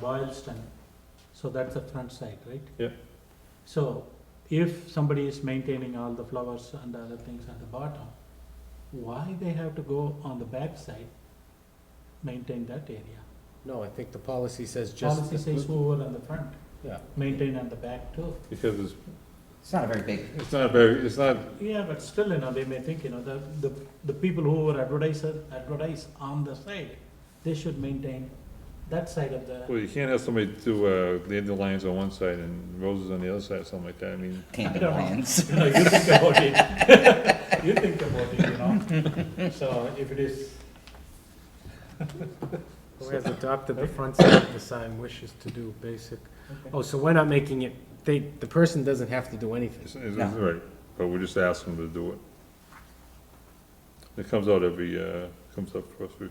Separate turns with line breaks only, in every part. Boylston, uh, so that's the front side, right?
Yeah.
So if somebody is maintaining all the flowers and other things at the bottom, why they have to go on the back side, maintain that area?
No, I think the policy says just.
Policy says whoever on the front,
Yeah.
maintain on the back too.
because it's,
It's not a very big,
it's not very, it's not,
Yeah, but still, you know, they may think, you know, the, the, the people who are advertiser, advertise on the side, they should maintain that side of the,
well, you can't have somebody do, uh, dandelions on one side and roses on the other side, something like that, I mean,
I
can't be
don't know.
lions.
you know, you think about it. You think about it, you know, so if it is,
Whereas adopted the front side of the sign wishes to do basic,
okay,
oh, so we're not making it, they, the person doesn't have to do anything.
it's, it's,
No.
right, but we just ask them to do it. It comes out every, uh, comes up for us, we,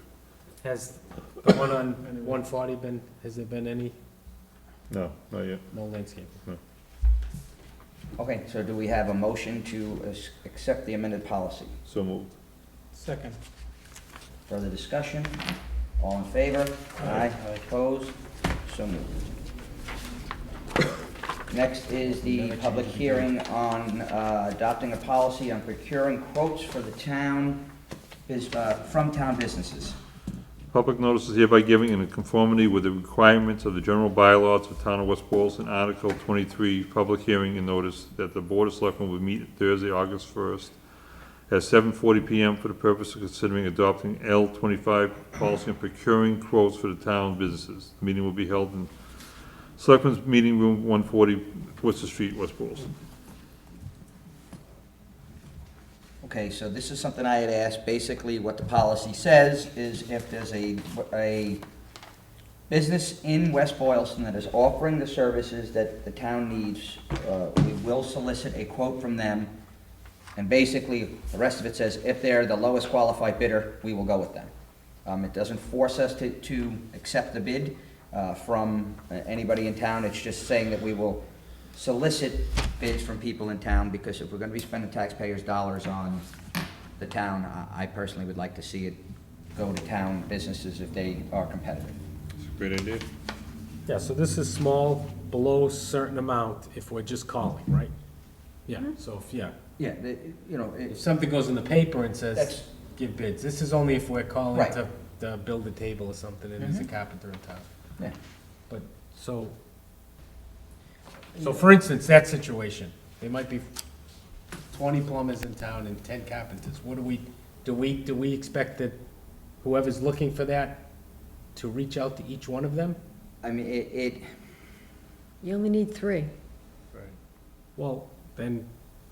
Has the one on one forty been, has there been any,
no, not yet,
no landscaping?
Okay, so do we have a motion to as- accept the amended policy?
so moved.
second.
Further discussion? All in favor? Aye. Opposed? So moved. Next is the public hearing on uh, adopting a policy on procuring quotes for the town, bus- uh, from town businesses.
Public notice is hereby given in conformity with the requirements of the general bylaws of Town of West Boylston, Article twenty-three, public hearing and notice that the Board of Selectmen will meet Thursday, August first, at seven forty PM for the purpose of considering adopting L twenty-five policy and procuring quotes for the town businesses. The meeting will be held in Selectmen's Meeting Room one forty, Worcester Street, West Boylston.
Okay, so this is something I had asked, basically what the policy says is if there's a, a business in West Boylston that is offering the services that the town needs, uh, we will solicit a quote from them. And basically, the rest of it says if they're the lowest qualified bidder, we will go with them. Um, it doesn't force us to, to accept the bid, uh, from uh, anybody in town, it's just saying that we will solicit bids from people in town, because if we're gonna be spending taxpayers' dollars on the town, I, I personally would like to see it go to town businesses if they are competitive.
It's a great idea.
Yeah, so this is small, below certain amount, if we're just calling, right? Yeah, so if, yeah,
Yeah, the, you know,
if
it's,
something goes in the paper and
That's-
says, give bids, this is only if we're calling
Right. Mm-hmm.
to, to build a table or something, and there's a carpenter in town.
yeah,
But, so, so for instance, that situation, there might be twenty plumbers in town and ten carpenters, what do we, do we, do we expect that whoever's looking for that to reach out to each one of them?
I mean, it, it,
You only need three.
Well, then,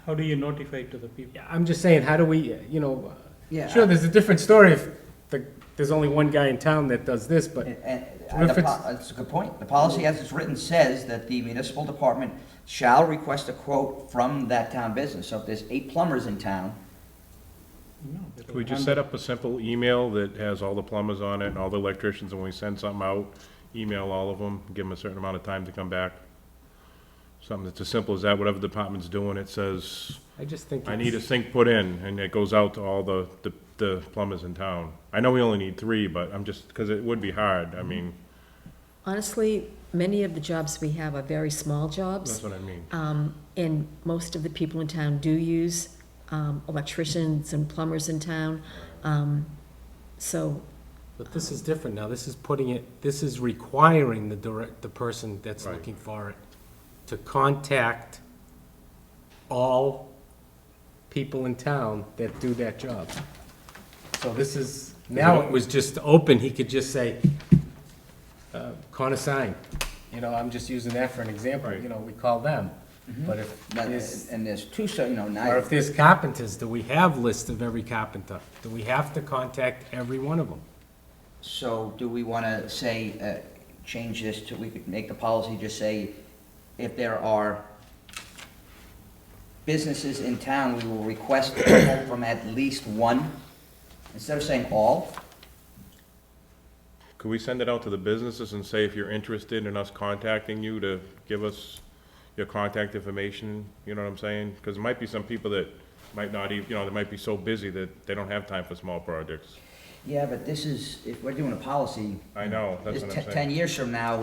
How do you notify to the people?
yeah, I'm just saying, how do we, you know,
yeah.
sure, there's a different story if the, there's only one guy in town that does this, but,
And- and-
What if
the po-
it's-
That's a good point. The policy as it's written says that the municipal department shall request a quote from that town business. So if there's eight plumbers in town,
Can we just set up a simple email that has all the plumbers on it and all the electricians, and when we send something out, email all of them, give them a certain amount of time to come back? Something that's as simple as that, whatever department's doing, it says,
I just think.
I
it's-
need a sink put in, and it goes out to all the, the- the plumbers in town. I know we only need three, but I'm just, because it would be hard, I mean,
Honestly, many of the jobs we have are very small
that's
jobs.
what I mean.
Um, and most of the people in town do use, um, electricians and plumbers in town. Um, so,
But this is different now, this is putting it, this is requiring the direct, the person that's
Right.
looking for it to contact all people in town that do that job. So this is, now it was just open, he could just say, uh, con a sign, you know, I'm just using that for an example, you know, we call them. But if
that-
there's,
and there's two, so, you know,
or
nine,
if there's carpenters, do we have list of every carpenter? Do we have to contact every one of them?
so do we want to say, uh, change this to, we could make the policy just say, if there are businesses in town, we will request a quote from at least one, instead of saying all?
Could we send it out to the businesses and say, if you're interested in us contacting you, to give us your contact information? You know what I'm saying? Because there might be some people that might not even, you know, they might be so busy that they don't have time for small projects.
Yeah, but this is, if we're doing a policy.
I know, that's
this
what I'm
te-
saying.
Ten years from now,